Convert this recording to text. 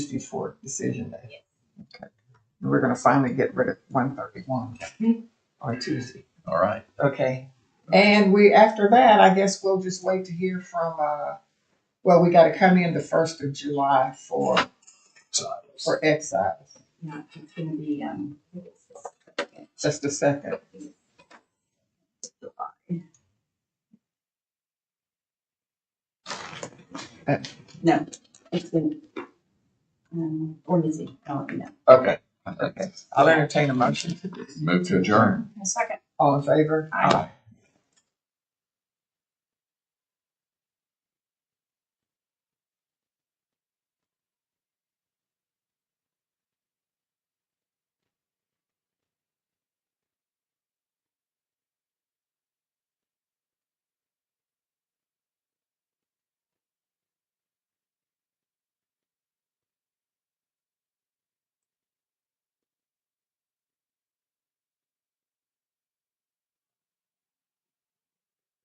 before decision day. And We're gonna finally get rid of one thirty-one on Tuesday, All right. okay? And we, after that, I guess we'll just wait to hear from, uh, well, we gotta come in the first of July for, for exiles. No, it's gonna be, um, Just a second. no, it's been, um, or Lizzie, I'll let you know. Okay. Okay, I'll entertain a motion. Move to adjourn. A second. All in favor? Aye. Aye.